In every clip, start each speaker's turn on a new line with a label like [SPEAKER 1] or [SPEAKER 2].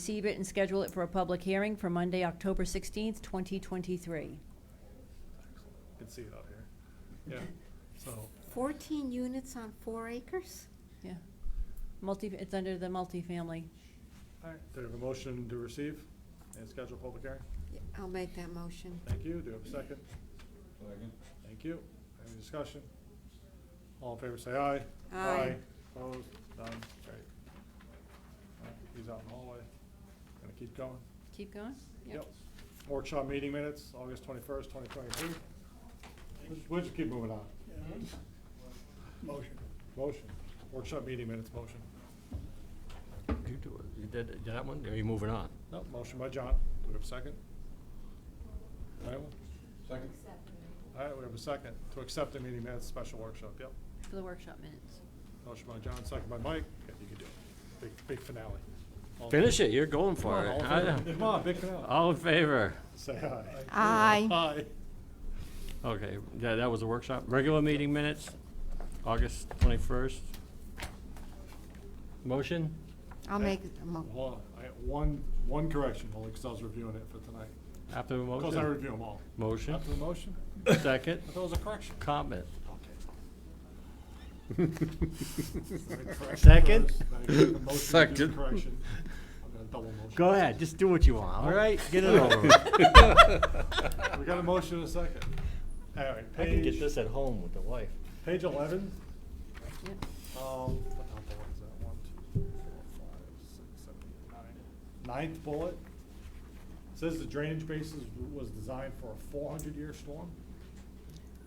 [SPEAKER 1] receive it and schedule it for a public hearing for Monday, October 16th, 2023.
[SPEAKER 2] You can see it out here. Yeah, so,
[SPEAKER 3] 14 units on four acres?
[SPEAKER 1] Yeah. Multi, it's under the multifamily.
[SPEAKER 2] all right, do we have a motion to receive and schedule a public hearing?
[SPEAKER 3] Yeah, I'll make that motion.
[SPEAKER 2] Thank you, do we have a second?
[SPEAKER 4] Second.
[SPEAKER 2] Thank you. Any discussion? All in favor, say aye.
[SPEAKER 3] Aye.
[SPEAKER 2] Opposed, none, carried. All right, He's out in the hallway. Gonna keep going?
[SPEAKER 1] Keep going?
[SPEAKER 2] Workshop meeting minutes, August twenty-first, twenty twenty-two. We'll just keep moving on.
[SPEAKER 5] Motion.
[SPEAKER 2] Motion, workshop meeting minutes, motion.
[SPEAKER 6] You do it. You did that one, or are you moving on?
[SPEAKER 2] No, motion by John. Do we have a second? Anyone?
[SPEAKER 4] Second.
[SPEAKER 2] All right, we have a second to accept the meeting minutes, special workshop, yep.
[SPEAKER 1] For the workshop minutes.
[SPEAKER 2] Motion by John, second by Mike. Okay, You can do it. Big, big finale. All in
[SPEAKER 6] Finish it, you're going
[SPEAKER 2] Come
[SPEAKER 6] for
[SPEAKER 2] on,
[SPEAKER 6] it.
[SPEAKER 2] all
[SPEAKER 6] I-
[SPEAKER 2] in favor. Come on, big finale.
[SPEAKER 6] All in favor?
[SPEAKER 2] Say aye.
[SPEAKER 3] Aye.
[SPEAKER 2] Aye.
[SPEAKER 6] Okay, yeah, that was a workshop. Regular meeting minutes, August 21st. Motion?
[SPEAKER 3] I'll make a mo-
[SPEAKER 2] Hold on, I got one, one correction, only because I was reviewing it for tonight.
[SPEAKER 6] After the
[SPEAKER 2] Because I
[SPEAKER 6] motion?
[SPEAKER 2] review them all.
[SPEAKER 6] Motion,
[SPEAKER 2] After the motion,
[SPEAKER 6] second,
[SPEAKER 2] I thought it was a correction.
[SPEAKER 6] comment.
[SPEAKER 2] Second?
[SPEAKER 4] Second.
[SPEAKER 2] Correction. I'm gonna double motion.
[SPEAKER 6] Go ahead, just do what you want, all right? Get it over with.
[SPEAKER 2] We got a motion and a second. All right,
[SPEAKER 6] I can get
[SPEAKER 2] page,
[SPEAKER 6] this at home with the wife.
[SPEAKER 2] page eleven.
[SPEAKER 1] Yep.
[SPEAKER 2] Um, what number is that? One, two, three, four, five, six, seven, eight, nine. Ninth bullet. Says the drainage basin was designed for a four hundred year storm.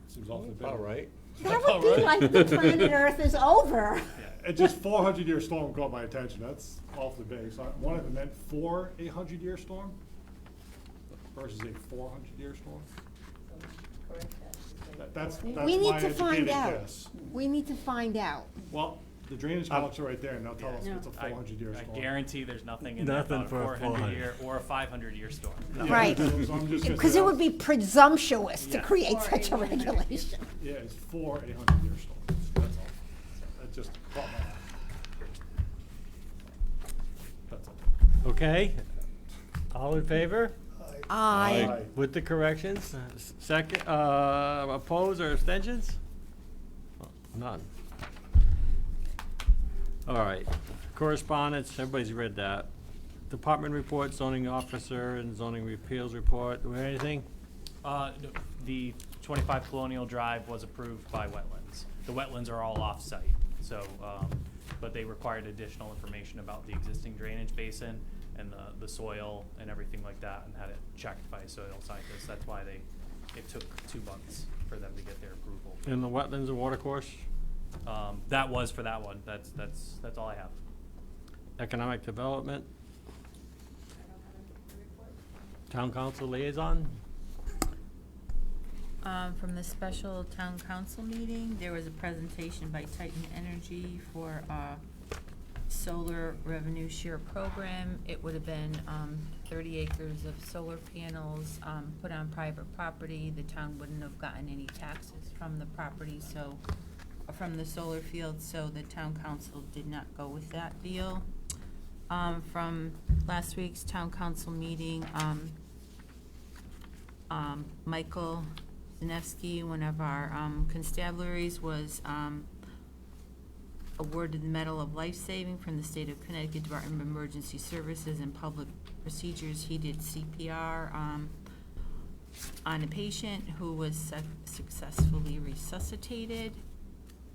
[SPEAKER 2] Seems awfully big.
[SPEAKER 6] All right.
[SPEAKER 3] That would be like the planet Earth is over.
[SPEAKER 2] It just four hundred year storm caught my attention. That's awfully big. So I wanted to meant for a hundred year storm versus a four hundred year storm. That- That's, that's
[SPEAKER 3] We
[SPEAKER 2] my
[SPEAKER 3] need to find
[SPEAKER 2] educated
[SPEAKER 3] out.
[SPEAKER 2] guess. Uh,
[SPEAKER 3] We need to find out.
[SPEAKER 2] Well, the drainage columns are right there and they'll tell us if it's a
[SPEAKER 7] I-
[SPEAKER 2] four hundred year storm.
[SPEAKER 7] I guarantee there's nothing in there
[SPEAKER 6] Nothing
[SPEAKER 7] about a
[SPEAKER 6] for a
[SPEAKER 7] four hundred year or a five hundred year storm.
[SPEAKER 2] Yeah,
[SPEAKER 3] Right.
[SPEAKER 2] so I'm just gonna
[SPEAKER 3] Because
[SPEAKER 2] say
[SPEAKER 3] it would
[SPEAKER 2] that's-
[SPEAKER 3] be presumptuous to
[SPEAKER 7] Yeah.
[SPEAKER 3] create such a regulation.
[SPEAKER 2] Yeah, it's for a hundred year storm. That's all. That just caught my eye. That's all.
[SPEAKER 6] Okay? All in favor?
[SPEAKER 3] Aye.
[SPEAKER 2] Aye.
[SPEAKER 6] With the corrections, uh, s- second, uh, oppose or abstentions? None. All right, correspondence, everybody's read that. Department report, zoning officer and zoning repeals report, Do we have anything?
[SPEAKER 7] Uh, no, the twenty-five Colonial Drive was approved by wetlands. The wetlands are all off-site, so, um, but they required additional information about the existing drainage basin and the, the soil and everything like that, and had it checked by a soil scientist. That's why they, it took two months for them to get their approval.
[SPEAKER 6] In the wetlands and water course,
[SPEAKER 7] Um, that was for that one. That's, that's, that's all I have.
[SPEAKER 6] economic development? Town council liaison?
[SPEAKER 8] Um, from the special town council meeting, there was a presentation by Titan Energy for, uh, solar revenue share program. It would have been, um, thirty acres of solar panels, um, put on private property. The town wouldn't have gotten any taxes from the property, so, from the solar field, so the town council did not go with that deal. Um, from last week's town council meeting, um, um, Michael Zanevsky, one of our um, constabularies, was um, awarded the Medal of Life Saving from the State of Connecticut Department of Emergency Services and Public Procedures. He did CPR um, on a patient who was suc- successfully resuscitated.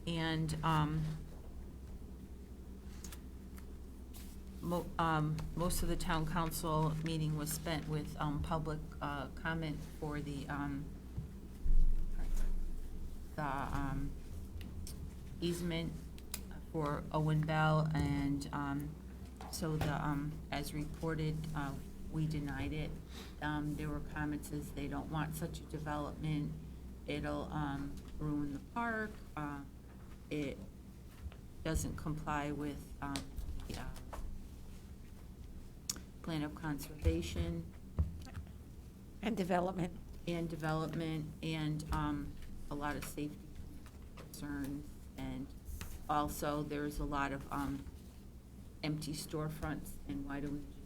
[SPEAKER 8] And um, mo- um, most of the town council meeting was spent with um, public uh, comment for the, um, the um, easement for Owen Bell, and um, so the, um, as reported, uh, we denied it. Um, There were comments as they don't want such a development, it'll um, ruin the park, uh, it doesn't comply with um, the uh, plan of conservation
[SPEAKER 3] And development.
[SPEAKER 8] and development and um, a lot of safety concerns. And also, there's a lot of um, empty storefronts, and why do we